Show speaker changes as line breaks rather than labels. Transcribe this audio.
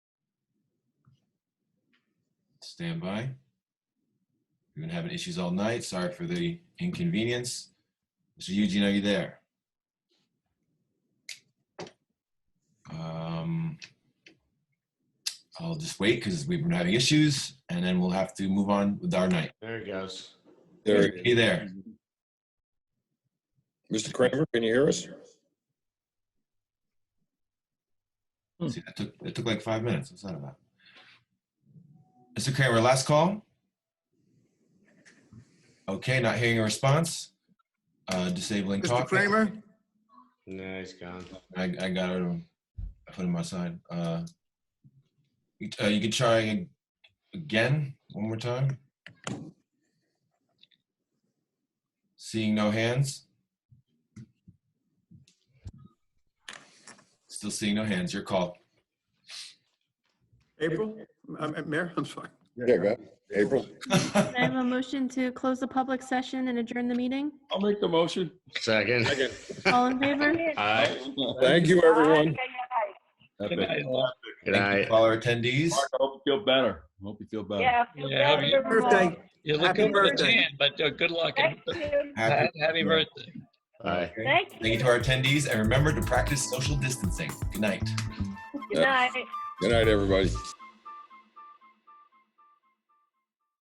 Stand by. We've been having issues all night. Sorry for the inconvenience. Mr. Eugene, are you there? Um, I'll just wait because we've been having issues and then we'll have to move on with our night.
There it goes.
There,
Mr. Key there.
Mr. Kramer, can you hear us?
See, that took, that took like five minutes. What's that about? Mr. Kramer, last call? Okay, not hearing a response. Uh, disabling
Mr.
talk.
Kramer?
No, he's gone.
I, I got rid of him. I put him aside. Uh, you, uh, you can try ag- again, one more time. Seeing no hands. Still seeing no hands. Your call.
April? Um, uh, Mayor, I'm sorry.
Yeah, go ahead. April?
Can I have a motion to close the public session and adjourn the meeting?
I'll make the motion.
Second.
All in favor?
Aye.
Thank you, everyone.
Good night, all.
Good
Thank you
night.
for all our attendees.
Mark, I hope you feel better. I Hope you feel better.
Yeah.
Yeah, have you-
Birthday.
You're
Happy
looking for a
birthday.
tan, but uh, good luck. and-
Thank you.
Happy-
Happy birthday.
Aye.
Okay.
Thank
Thank you
you.
to our attendees and remember to practice social distancing. Good night.
Good night.
Good night, everybody.